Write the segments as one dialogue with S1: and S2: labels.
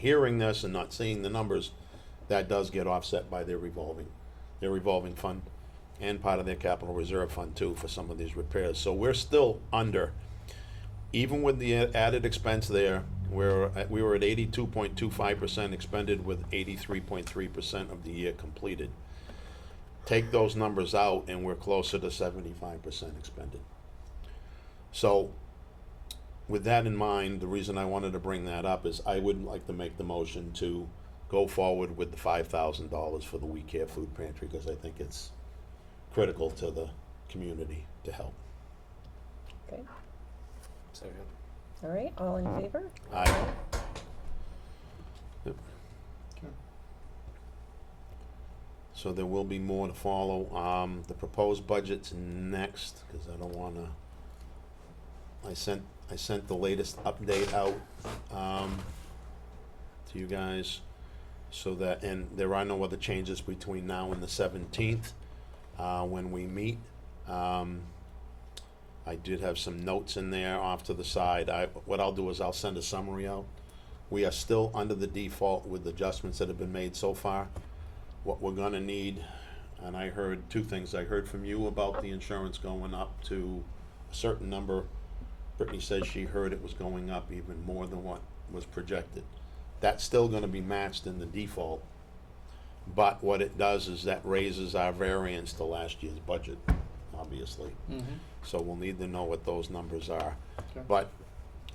S1: hearing this and not seeing the numbers, that does get offset by their revolving, their revolving fund and part of their capital reserve fund too for some of these repairs. So we're still under, even with the added expense there, we're, at- we were at eighty-two point two five percent expended with eighty-three point three percent of the year completed. Take those numbers out and we're closer to seventy-five percent expended. So with that in mind, the reason I wanted to bring that up is I would like to make the motion to go forward with the five thousand dollars for the We Care Food Pantry, because I think it's critical to the community to help.
S2: Okay,
S3: Second.
S2: all right, all in favor?
S1: Aye. Yep. So there will be more to follow, um, the proposed budget's next, cause I don't wanna, I sent, I sent the latest update out, um, to you guys, so that, and there are no other changes between now and the seventeenth, uh, when we meet, um, I did have some notes in there off to the side. I, what I'll do is I'll send a summary out. We are still under the default with adjustments that have been made so far. What we're gonna need, and I heard two things. I heard from you about the insurance going up to a certain number. Brittany says she heard it was going up even more than what was projected. That's still gonna be matched in the default. But what it does is that raises our variance to last year's budget, obviously so we'll need to know what those numbers are.
S3: Okay.
S1: But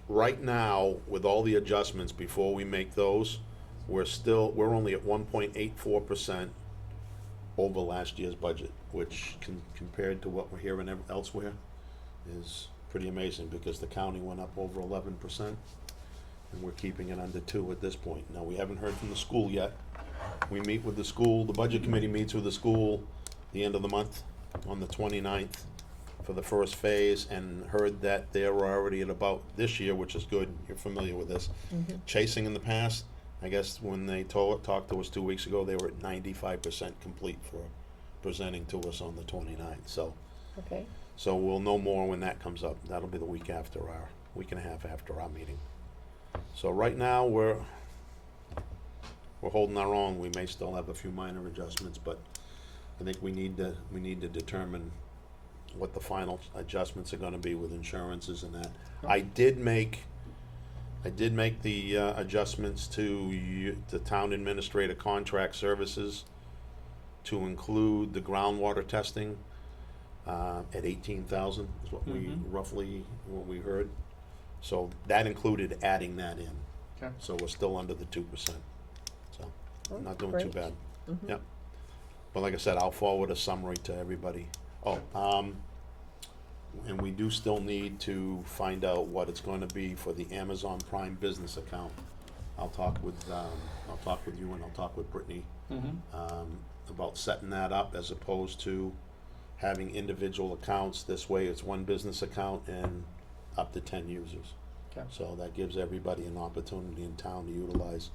S1: right now, with all the adjustments, before we make those, we're still, we're only at one point eight four percent over last year's budget, which con- compared to what we're hearing ev- elsewhere is pretty amazing, because the county went up over eleven percent, and we're keeping it under two at this point. Now, we haven't heard from the school yet. We meet with the school, the budget committee meets with the school the end of the month, on the 29th for the first phase and heard that they were already at about this year, which is good. You're familiar with this. Chasing in the past, I guess when they told, talked to us two weeks ago, they were at ninety-five percent complete for presenting to us on the 29th. So,
S2: Okay,
S1: so we'll know more when that comes up. That'll be the week after our, week and a half after our meeting. So right now, we're, we're holding our own. We may still have a few minor adjustments, but I think we need to, we need to determine what the final adjustments are gonna be with insurances and that. I did make, I did make the uh, adjustments to you, the town administrator contract services to include the groundwater testing, uh, at eighteen thousand is what we
S3: Mhm.
S1: roughly, what we heard. So that included adding that in.
S3: Okay.
S1: So we're still under the two percent, so
S2: Oh,
S1: not doing too
S2: great.
S1: bad.
S2: Mhm.
S1: Yep. But like I said, I'll forward a summary to everybody. Oh, um, and we do still need to find out what it's gonna be for the Amazon Prime Business account. I'll talk with, um, I'll talk with you and I'll talk with Brittany,
S3: Mm-hmm.
S1: um, about setting that up as opposed to having individual accounts. This way, it's one business account and up to ten users.
S3: Okay.
S1: So that gives everybody an opportunity in town to utilize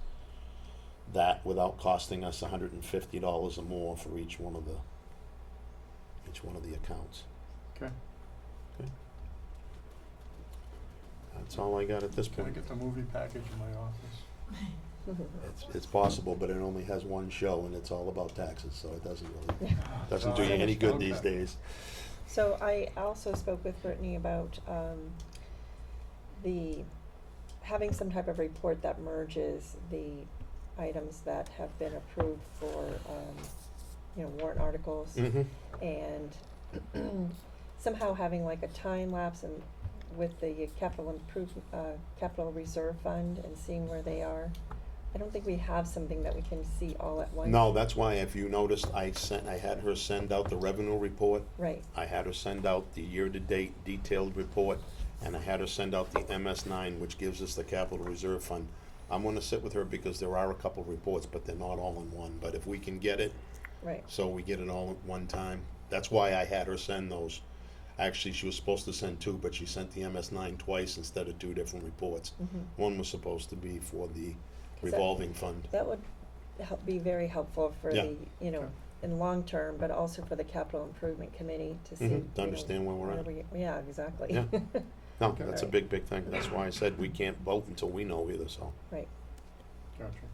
S1: that without costing us hundred and fifty dollars or more for each one of the, each one of the accounts.
S3: Okay.
S1: That's all I got at this
S3: Can I
S1: point.
S3: get the movie package in my office?
S1: It's, it's possible, but it only has one show and it's all about taxes, so it doesn't really, doesn't do you any good these
S3: Okay.
S1: days.
S2: so I also spoke with Brittany about, um, the, having some type of report that merges the items that have been approved for, um, you know, warrant articles.
S1: Mm-hmm.
S2: and somehow having like a time lapse and with the capital improve, uh, capital reserve fund and seeing where they are. I don't think we have something that we can see all at once.
S1: No, that's why if you noticed, I sent, I had her send out the revenue report.
S2: Right,
S1: I had her send out the year-to-date detailed report, and I had her send out the MS nine, which gives us the capital reserve fund. I'm gonna sit with her because there are a couple reports, but they're not all in one, but if we can get it,
S2: right,
S1: so we get it all at one time, that's why I had her send those. Actually, she was supposed to send two, but she sent the MS nine twice instead of two different reports.
S2: mhm.
S1: One was supposed to be for the
S2: that-
S1: revolving fund.
S2: That would help, be very helpful for
S1: Yeah.
S2: the, you know,
S3: Sure.
S2: in long term, but also for the capital improvement committee to see.
S1: Mhm, to
S2: you know,
S1: understand where we're at.
S2: we- Yeah, exactly.
S1: Yeah. No,
S3: Okay.
S1: that's a big, big thing, that's why I said we can't vote until we know either, so.
S2: Right,
S3: Gotcha.